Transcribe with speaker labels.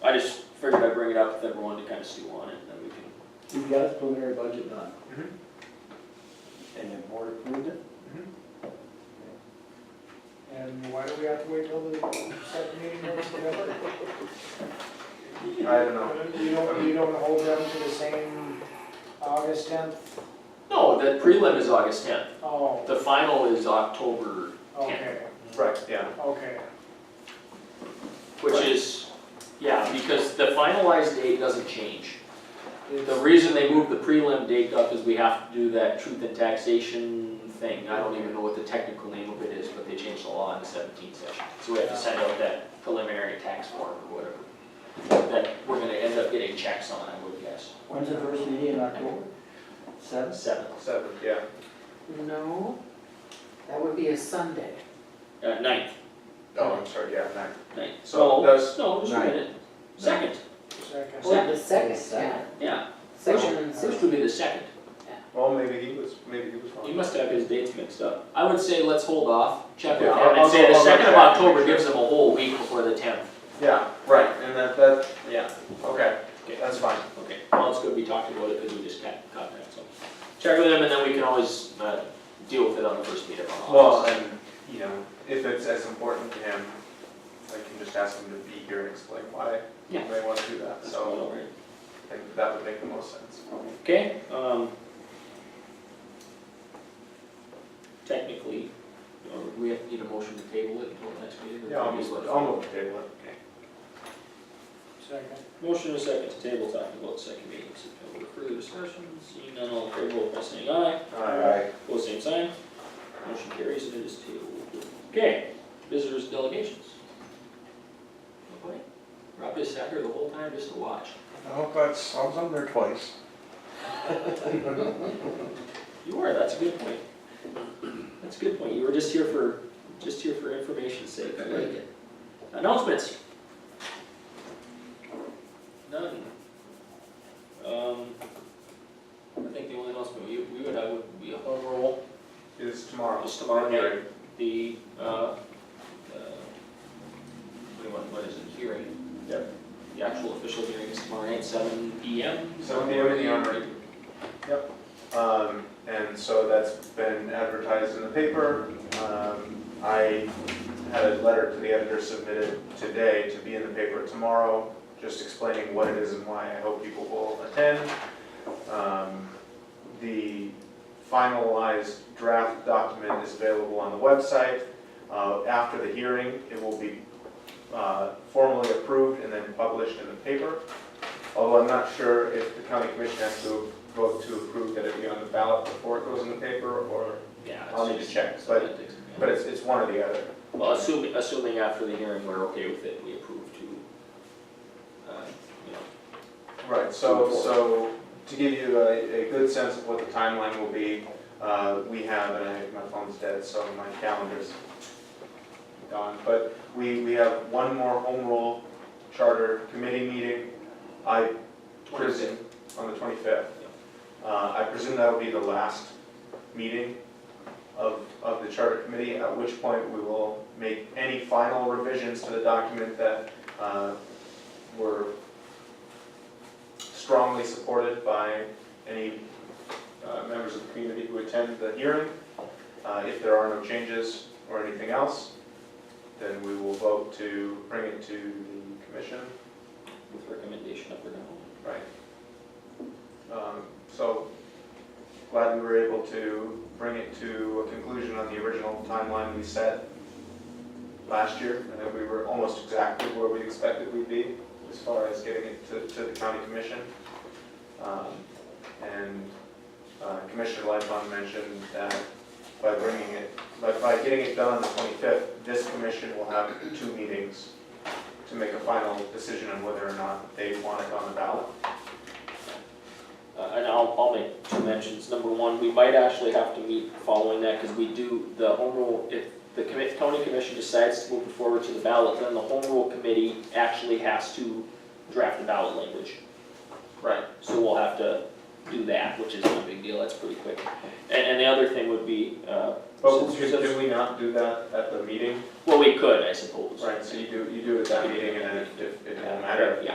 Speaker 1: bring it up with everyone to kind of stew on it, and then we can.
Speaker 2: You've got his preliminary budget done,
Speaker 1: Mhm.
Speaker 2: and the board approved it?
Speaker 3: And why do we have to wait till the second meeting or whatever?
Speaker 4: I don't know.
Speaker 3: You don't, you don't hold them to the same August tenth?
Speaker 1: No, the prelim is August tenth,
Speaker 3: Oh,
Speaker 1: the final is October tenth,
Speaker 3: okay,
Speaker 4: Right, yeah.
Speaker 3: okay.
Speaker 1: which is, yeah, because the finalized date doesn't change. The reason they moved the prelim date up is we have to do that truth and taxation thing, I don't even know what the technical name of it is, but they changed the law in the seventeenth session. So we have to send out that preliminary tax form or whatever, that we're gonna end up getting checks on, I would guess,
Speaker 2: When's the first meeting in October? Seventh?
Speaker 1: seventh.
Speaker 4: Seven, yeah.
Speaker 5: No, that would be a Sunday.
Speaker 1: Uh, ninth,
Speaker 4: Oh, I'm sorry, yeah, nine.
Speaker 1: ninth.
Speaker 4: So that's-
Speaker 1: No, just a
Speaker 2: Ninth.
Speaker 1: minute. Second,
Speaker 3: Second.
Speaker 5: Or the second, Oh, yeah.
Speaker 2: Second.
Speaker 1: yeah,
Speaker 5: Section,
Speaker 1: first would be the second.
Speaker 4: Well, maybe he was, maybe he was
Speaker 1: He
Speaker 4: wrong.
Speaker 1: must have his dates mixed up. I would say let's hold off, check with
Speaker 4: Yeah,
Speaker 1: him,
Speaker 4: I'll-
Speaker 1: and say
Speaker 4: I'll-
Speaker 1: the
Speaker 4: I'll
Speaker 1: second of
Speaker 4: check, make
Speaker 1: October
Speaker 4: sure.
Speaker 1: gives him a whole week before the tenth.
Speaker 4: Yeah, right, and that, that,
Speaker 1: Yeah.
Speaker 4: okay,
Speaker 1: Okay.
Speaker 4: that's fine.
Speaker 1: Okay, well, it's good we talked about it, because we just got, got that, so. Check with him, and then we can always, uh, deal with it on the first meeting on
Speaker 4: Well,
Speaker 1: August.
Speaker 4: and, you know, if it's as important to him, I can just ask him to be here and explain why he
Speaker 1: Yeah.
Speaker 4: may want to do that,
Speaker 1: That's all
Speaker 4: so
Speaker 1: right.
Speaker 4: I think that would make the most sense.
Speaker 1: Okay, um. Technically, or we have, need a motion to table it until the next meeting? or
Speaker 4: Yeah, I'll
Speaker 1: can we
Speaker 4: move,
Speaker 1: just let it
Speaker 4: I'll
Speaker 1: float?
Speaker 4: move the table it.
Speaker 3: Second.
Speaker 1: Motion is second to table, talking about the second meeting, in September, further discussion, seeing none, all in favor, vote by saying aye.
Speaker 4: Alright.
Speaker 1: Pose same sign. Motion carries and it is tabled. Okay, visitors delegations. Nobody? Rob just sat here the whole time just to watch.
Speaker 6: I hope that's, I was on there twice.
Speaker 1: You were, that's a good point. That's a good point. You were just here for, just here for information's sake. I like it. Announcements? None. Um, I think the only announcement we, we would have would be a home rule.
Speaker 4: Is tomorrow.
Speaker 1: It's tomorrow night.
Speaker 4: Hearing.
Speaker 1: the, uh, uh, what do you want- what is it, hearing?
Speaker 4: Yep.
Speaker 1: The actual official hearing is tomorrow night, seven P M.
Speaker 4: 7 p.m. in the Armory. Um, and so that's been advertised in the paper. Um, I had a letter to the editor submitted today to be in the paper tomorrow, just explaining what it is and why I hope people will attend. Um, the finalized draft document is available on the website. Uh, after the hearing, it will be, uh, formally approved and then published in the paper. Although I'm not sure if the county commission has to vote to approve that it be on the ballot before it goes in the paper, or,
Speaker 1: Yeah.
Speaker 4: I'll need to check, but- but it's, it's one or the other.
Speaker 1: Well, assuming, assuming after the hearing, we're okay with it, we approve to, uh, you know,
Speaker 4: Right, so, so to give you a, a good sense of what the timeline will be, uh, we have, and I, my phone's dead, so my calendar's gone, but we, we have one more home rule charter committee meeting. I presume, on the twenty-fifth. Uh, I presume that'll be the last meeting of, of the charter committee, at which point we will make any final revisions to the document that, uh, were strongly supported by any uh, members of the community who attend the hearing. Uh, If there are no changes or anything else, then we will vote to bring it to the commission.
Speaker 1: with recommendation up or down.
Speaker 4: Right. Um, So glad we were able to bring it to a conclusion on the original timeline we set last year. And that we were almost exactly where we expected we'd be as far as getting it to, to the county commission. Um, And uh, Commissioner Lightfon mentioned that by bringing it, by, by getting it done on the twenty-fifth, this commission will have two meetings to make a final decision on whether or not they want it on the ballot.
Speaker 1: Uh, and I'll, I'll make two mentions. Number one, we might actually have to meet following that, because we do, the home rule, if the commit, county commission decides to move it forward to the ballot, then the home rule committee actually has to draft the ballot language.
Speaker 4: Right.
Speaker 1: So we'll have to do that, which is no big deal, that's pretty quick. And, and the other thing would be, uh,
Speaker 4: But
Speaker 1: Since-
Speaker 4: could,
Speaker 1: since-
Speaker 4: did we not do that at the meeting?
Speaker 1: well, we could, I suppose.
Speaker 4: Right, so you do, you do it at that meeting and then if, if it won't matter,
Speaker 1: Yeah,